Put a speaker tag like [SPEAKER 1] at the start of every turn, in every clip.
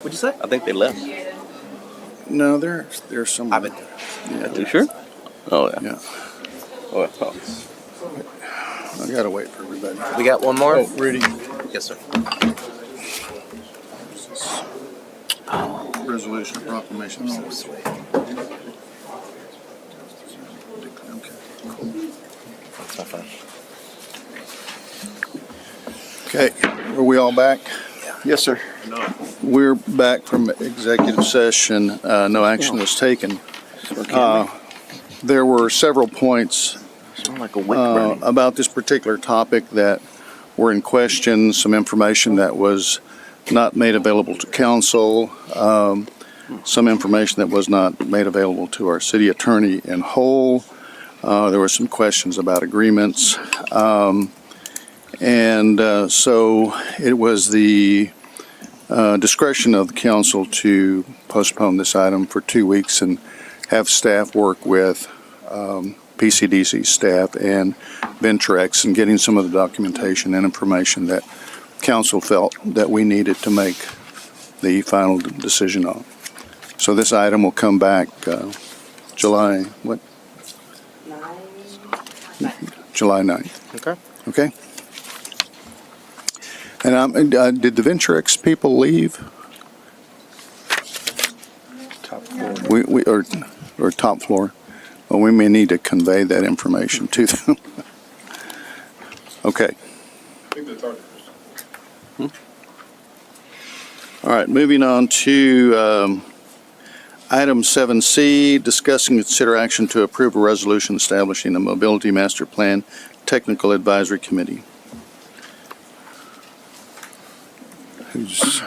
[SPEAKER 1] What'd you say? I think they left.
[SPEAKER 2] No, they're they're somewhere.
[SPEAKER 1] I've been-
[SPEAKER 2] yeah,
[SPEAKER 1] You sure? Oh yeah.
[SPEAKER 2] Yeah,
[SPEAKER 1] Oh, I thought-
[SPEAKER 2] I gotta wait for everybody.
[SPEAKER 1] We got one more.
[SPEAKER 2] Oh, Rudy,
[SPEAKER 1] Yes, sir.
[SPEAKER 2] resolution proclamation.
[SPEAKER 1] That's my phone.
[SPEAKER 2] Okay, are we all back? Yes, sir. We're back from executive session. Uh, no action was taken. Uh, there were several points
[SPEAKER 1] Sound like a wick
[SPEAKER 2] uh,
[SPEAKER 1] burning.
[SPEAKER 2] about this particular topic that were in question, some information that was not made available to council, um, some information that was not made available to our city attorney in whole. Uh, There were some questions about agreements. Um, And uh, so it was the uh, discretion of the council to postpone this item for two weeks and have staff work with um, PCDC staff and Ventrex and getting some of the documentation and information that council felt that we needed to make the final decision on. So this item will come back uh, July, what, July 9th,
[SPEAKER 1] Okay.
[SPEAKER 2] okay? And um, and, uh, did the Ventrex people leave?
[SPEAKER 1] Top floor.
[SPEAKER 2] We, we, or, or top floor. Well, we may need to convey that information to them. Okay. All right, moving on to, um, item seven C, discussing consider action to approve a resolution establishing a mobility master plan technical advisory committee. Who's,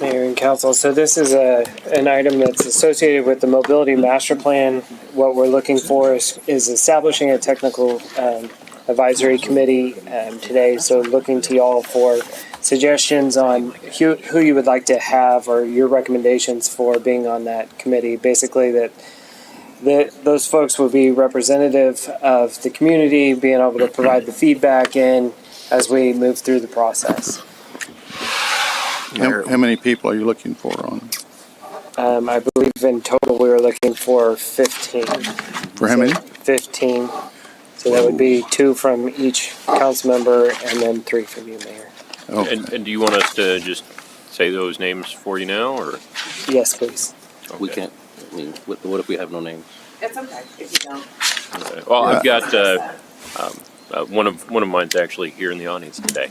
[SPEAKER 3] Mayor and council, so this is a, an item that's associated with the mobility master plan. What we're looking for is, is establishing a technical, um, advisory committee, um, today. So looking to y'all for suggestions on who, who you would like to have or your recommendations for being on that committee. Basically that, that those folks will be representative of the community, being able to provide the feedback in as we move through the process.
[SPEAKER 2] how how many people are you looking for on,
[SPEAKER 3] Um, I believe in total, we were looking for fifteen.
[SPEAKER 2] for how many?
[SPEAKER 3] Fifteen. So that would be two from each council member and then three from you, Mayor.
[SPEAKER 2] Oh,
[SPEAKER 4] And, and do you want us to just say those names for you now, or? uh,
[SPEAKER 3] Yes, please.
[SPEAKER 1] We
[SPEAKER 4] okay.
[SPEAKER 1] can't. I mean, what, what if we have no names?
[SPEAKER 5] It's okay if you don't.
[SPEAKER 4] Okay. Well, I've got, uh, um, uh, one of, one of mine's actually here in the audience today.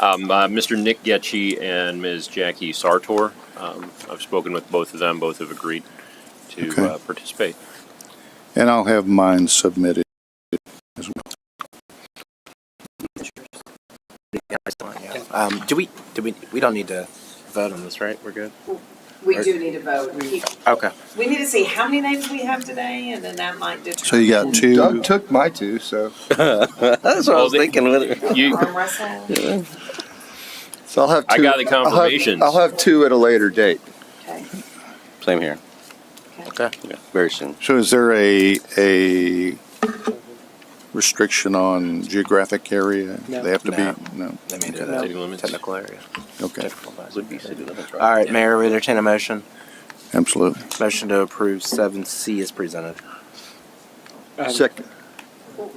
[SPEAKER 4] Um, uh, Mr. Nick Getchy and Ms. Jackie Sartor. Um, I've spoken with both of them, both have agreed
[SPEAKER 2] Okay.
[SPEAKER 4] to, uh, participate.
[SPEAKER 2] And I'll have mine submitted as well.
[SPEAKER 6] Yeah, it's fine, yeah. Um, do we, do we, we don't need to vote on this, right? We're good?
[SPEAKER 5] We do need to vote. We-
[SPEAKER 6] Okay.
[SPEAKER 5] We need to see how many names we have today, and then that might determine.
[SPEAKER 2] So you got two,
[SPEAKER 7] Doug took my two, so
[SPEAKER 1] That's what I
[SPEAKER 4] Well,
[SPEAKER 1] was
[SPEAKER 4] they-
[SPEAKER 1] thinking. With it.
[SPEAKER 4] You,
[SPEAKER 5] Arm wrestling,
[SPEAKER 7] so I'll have two.
[SPEAKER 4] I got the
[SPEAKER 7] I'll have-
[SPEAKER 4] confirmations.
[SPEAKER 7] I'll have two at a later date.
[SPEAKER 5] okay.
[SPEAKER 1] Same here.
[SPEAKER 6] Okay.
[SPEAKER 1] Yeah, very soon.
[SPEAKER 2] so is there a, a restriction on geographic area?
[SPEAKER 3] No.
[SPEAKER 2] They have to
[SPEAKER 6] No.
[SPEAKER 2] be, no,
[SPEAKER 6] Let me do
[SPEAKER 4] City
[SPEAKER 6] that.
[SPEAKER 4] limits.
[SPEAKER 6] Technical area.
[SPEAKER 2] okay,
[SPEAKER 6] Technical advisory.
[SPEAKER 1] Would be city limits, right?
[SPEAKER 6] All right, Mayor, we entertain a motion.
[SPEAKER 2] absolutely.
[SPEAKER 6] Motion to approve seven C is presented.
[SPEAKER 3] Um,
[SPEAKER 7] Second,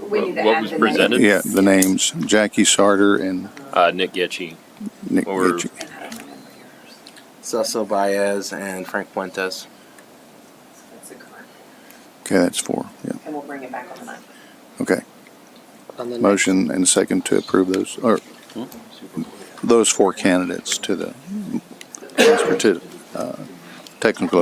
[SPEAKER 5] We need to
[SPEAKER 4] What
[SPEAKER 5] add
[SPEAKER 4] was
[SPEAKER 5] the
[SPEAKER 4] presented?
[SPEAKER 5] names.
[SPEAKER 2] Yeah, the names, Jackie Sarter and
[SPEAKER 4] Uh, Nick Getchy.
[SPEAKER 2] Nick
[SPEAKER 4] Or-
[SPEAKER 2] Mitchell.
[SPEAKER 5] And I don't remember yours.
[SPEAKER 6] Cecil Baez and Frank Fuentes.
[SPEAKER 5] That's the current.
[SPEAKER 2] Okay, that's four, yeah,
[SPEAKER 5] And we'll bring it back on the ninth.
[SPEAKER 2] okay.
[SPEAKER 3] on the next-
[SPEAKER 2] Motion and second to approve those, or those four candidates to the, to the, uh, technical